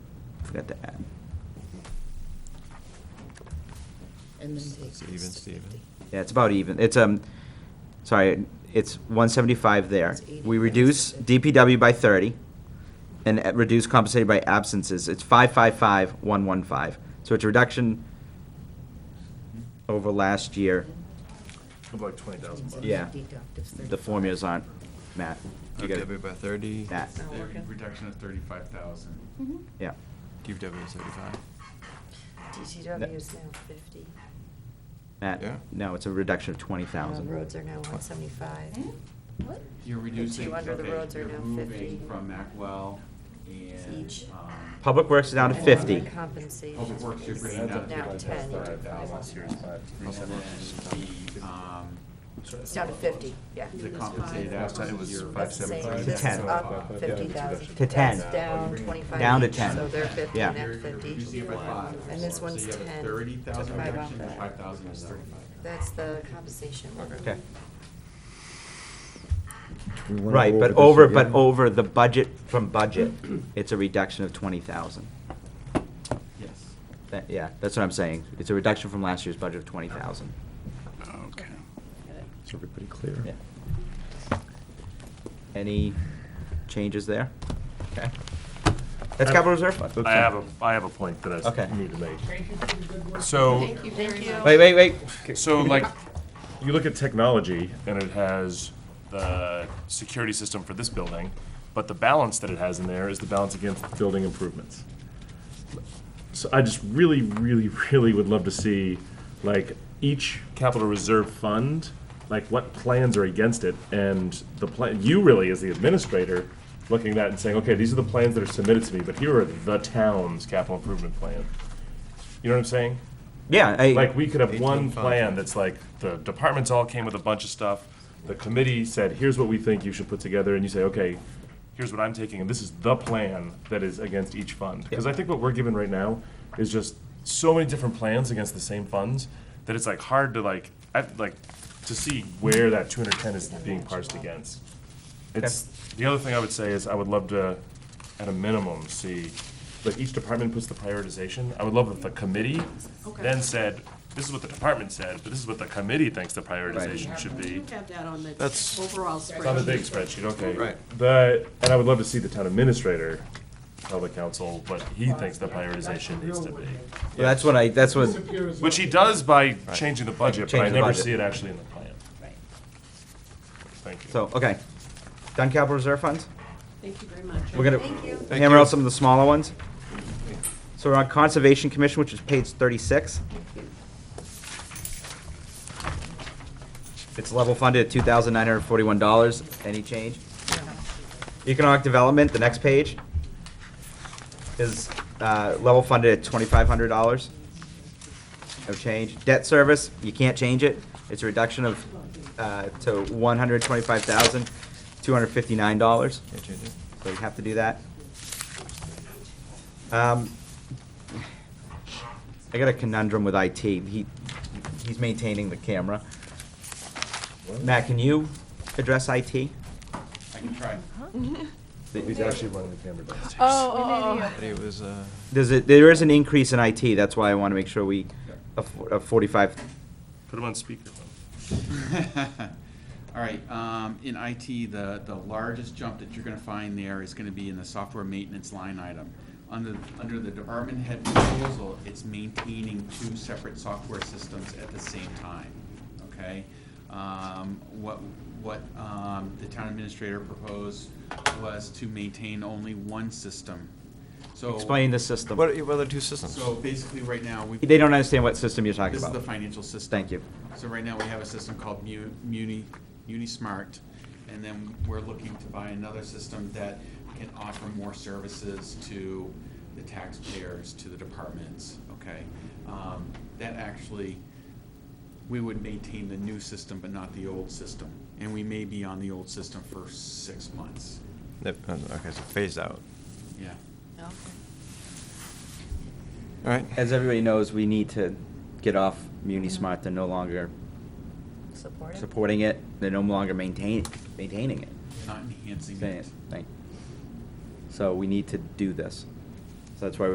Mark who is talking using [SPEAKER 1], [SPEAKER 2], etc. [SPEAKER 1] forgot to add.
[SPEAKER 2] And then take
[SPEAKER 3] It's even,
[SPEAKER 2] this to
[SPEAKER 3] Steven.
[SPEAKER 2] 50.
[SPEAKER 1] Yeah, it's about even. It's, um, sorry, it's one seventy-five there.
[SPEAKER 2] It's 80,
[SPEAKER 1] We
[SPEAKER 2] yeah,
[SPEAKER 1] reduce
[SPEAKER 2] it's good.
[SPEAKER 1] DPW by thirty and uh, reduce compensated by absences. It's five, five, five, one, one, five. So it's a reduction over last year.
[SPEAKER 4] Of like twenty thousand bucks.
[SPEAKER 1] Yeah.
[SPEAKER 2] Deductive
[SPEAKER 1] The
[SPEAKER 2] 35.
[SPEAKER 1] formulas aren't, Matt. you gotta-
[SPEAKER 3] DPW by 30.
[SPEAKER 1] Matt,
[SPEAKER 5] It's not
[SPEAKER 6] The
[SPEAKER 5] working.
[SPEAKER 6] Reduction of thirty-five thousand.
[SPEAKER 1] yeah.
[SPEAKER 3] DPW is 35.
[SPEAKER 5] DTW is now fifty.
[SPEAKER 3] Yeah.
[SPEAKER 1] Matt, no, it's a reduction of twenty
[SPEAKER 5] Uh,
[SPEAKER 1] thousand.
[SPEAKER 5] Roads are now one seventy-five.
[SPEAKER 6] Hmm? You're reducing.
[SPEAKER 5] two under the
[SPEAKER 6] okay,
[SPEAKER 5] roads are
[SPEAKER 6] you're
[SPEAKER 5] now
[SPEAKER 6] moving
[SPEAKER 5] 50.
[SPEAKER 6] From Macwell and,
[SPEAKER 5] Each.
[SPEAKER 6] um.
[SPEAKER 1] Public Works is down to
[SPEAKER 5] And
[SPEAKER 1] fifty.
[SPEAKER 5] Compensation.
[SPEAKER 6] Public Works, you're bringing down to
[SPEAKER 5] Now ten.
[SPEAKER 6] fifty-five thousand. Um,
[SPEAKER 5] It's down to fifty, yeah.
[SPEAKER 6] the compensated absences, you're five
[SPEAKER 5] Same,
[SPEAKER 6] seventy-five.
[SPEAKER 5] this is
[SPEAKER 1] ten.
[SPEAKER 5] up fifty thousand.
[SPEAKER 1] To ten.
[SPEAKER 5] That's down twenty-five.
[SPEAKER 1] Down to
[SPEAKER 5] each,
[SPEAKER 1] ten.
[SPEAKER 5] So they're fifty
[SPEAKER 1] Yeah.
[SPEAKER 5] and
[SPEAKER 6] You're
[SPEAKER 5] that's
[SPEAKER 6] you're
[SPEAKER 5] fifty.
[SPEAKER 6] reducing it by five.
[SPEAKER 5] And this one's
[SPEAKER 6] So you have
[SPEAKER 5] ten.
[SPEAKER 6] a thirty thousand
[SPEAKER 5] Took five
[SPEAKER 6] reduction,
[SPEAKER 5] off that.
[SPEAKER 6] five thousand is thirty-five.
[SPEAKER 5] That's the compensation. one.
[SPEAKER 1] Okay.
[SPEAKER 4] Do we wanna
[SPEAKER 1] Right,
[SPEAKER 4] go
[SPEAKER 1] but
[SPEAKER 4] this
[SPEAKER 1] over, but
[SPEAKER 4] again?
[SPEAKER 1] over the budget from budget, it's a reduction of twenty thousand.
[SPEAKER 6] Yes.
[SPEAKER 1] That- Yeah, that's what I'm saying. It's a reduction from last year's budget of twenty thousand.
[SPEAKER 6] Okay.
[SPEAKER 4] Is everybody clear?
[SPEAKER 1] Yeah. Any changes there? Okay. That's capital reserve fund.
[SPEAKER 4] That's
[SPEAKER 7] I have a,
[SPEAKER 4] it.
[SPEAKER 7] I have a point that I
[SPEAKER 1] Okay.
[SPEAKER 7] s- need to make. So,
[SPEAKER 5] Thank you very much.
[SPEAKER 1] Wait, wait, wait.
[SPEAKER 7] so like, you look at technology and it has the security system for this building, but the balance that it has in there is the balance against building improvements. So I just really, really, really would love to see, like, each capital reserve fund, like, what plans are against it, and the plan, you really, as the administrator, looking at that and saying, okay, these are the plans that are submitted to me, but here are the town's capital improvement plan. You know what I'm saying?
[SPEAKER 1] Yeah,
[SPEAKER 7] Like,
[SPEAKER 1] I,
[SPEAKER 7] we could have one
[SPEAKER 3] 18 funds.
[SPEAKER 7] plan that's like, the departments all came with a bunch of stuff, the committee said, here's what we think you should put together, and you say, okay, here's what I'm taking, and this is the plan that is against each fund. Because I think what we're given right now is just so many different plans against the same funds, that it's like hard to like, I, like, to see where that two hundred ten is being parsed against. It's, the other thing I would say is, I would love to, at a minimum, see, like, each department puts the prioritization, I would love if the committee then said, this is what the department said, but this is what the committee thinks the prioritization should be.
[SPEAKER 8] have that on the
[SPEAKER 3] That's-
[SPEAKER 8] overall
[SPEAKER 7] It's on the big
[SPEAKER 8] spreadsheet.
[SPEAKER 7] spreadsheet, okay.
[SPEAKER 3] Right.
[SPEAKER 7] The, and I would love to see the town administrator tell the council what he thinks the prioritization needs to be.
[SPEAKER 1] that's what I, that's what,
[SPEAKER 7] Which he does by changing the budget, but I
[SPEAKER 1] Change the
[SPEAKER 7] never
[SPEAKER 1] budget.
[SPEAKER 7] see it actually in the plan. Thank you.
[SPEAKER 1] so, uh, okay. Done capital reserve funds?
[SPEAKER 8] Thank you very much.
[SPEAKER 1] We're gonna hammer out some of the smaller ones. So we're on Conservation Commission, which is page thirty-six. It's level funded at two thousand nine hundred forty-one dollars. Any change? Economic Development, the next page, is, uh, level funded at twenty-five hundred dollars. No change. Debt service, you can't change it. It's a reduction of, uh, to one hundred twenty-five thousand, two hundred fifty-nine dollars.
[SPEAKER 3] Can't change it.
[SPEAKER 1] So you have to do that. Um, I got a conundrum with IT. He, he's maintaining the camera. Matt, can you address IT?
[SPEAKER 6] I can try.
[SPEAKER 7] He's actually running the camera downstairs.
[SPEAKER 3] But it was, uh,
[SPEAKER 1] There's a, there is an increase in IT, that's why I want to make sure we, a fo- a forty-five,
[SPEAKER 7] Put him on speakerphone.
[SPEAKER 6] All right, um, in IT, the, the largest jump that you're gonna find there is gonna be in the software maintenance line item. Under, under the department head proposal, it's maintaining two separate software systems at the same time, okay? Um, what, what, um, the town administrator proposed was to maintain only one system, so.
[SPEAKER 1] explain the system.
[SPEAKER 3] what are what are the two systems?
[SPEAKER 6] So basically, right now, we.
[SPEAKER 1] They don't understand what system you're talking
[SPEAKER 6] This is
[SPEAKER 1] about.
[SPEAKER 6] the financial system.
[SPEAKER 1] Thank you.
[SPEAKER 6] So right now, we have a system called Mu- Muni, Unismart, and then we're looking to buy another system that can offer more services to the taxpayers, to the departments, okay? Um, That actually, we would maintain the new system, but not the old system. And we may be on the old system for six months,
[SPEAKER 3] That- Okay, so phased out.
[SPEAKER 6] yeah.
[SPEAKER 3] All right.
[SPEAKER 1] As everybody knows, we need to get off MuniSmart, they're no longer
[SPEAKER 5] Support it.
[SPEAKER 1] supporting it, they're no longer maintain, maintaining it.
[SPEAKER 6] Not enhancing
[SPEAKER 1] Saying it, thank- So we need to do this. So that's why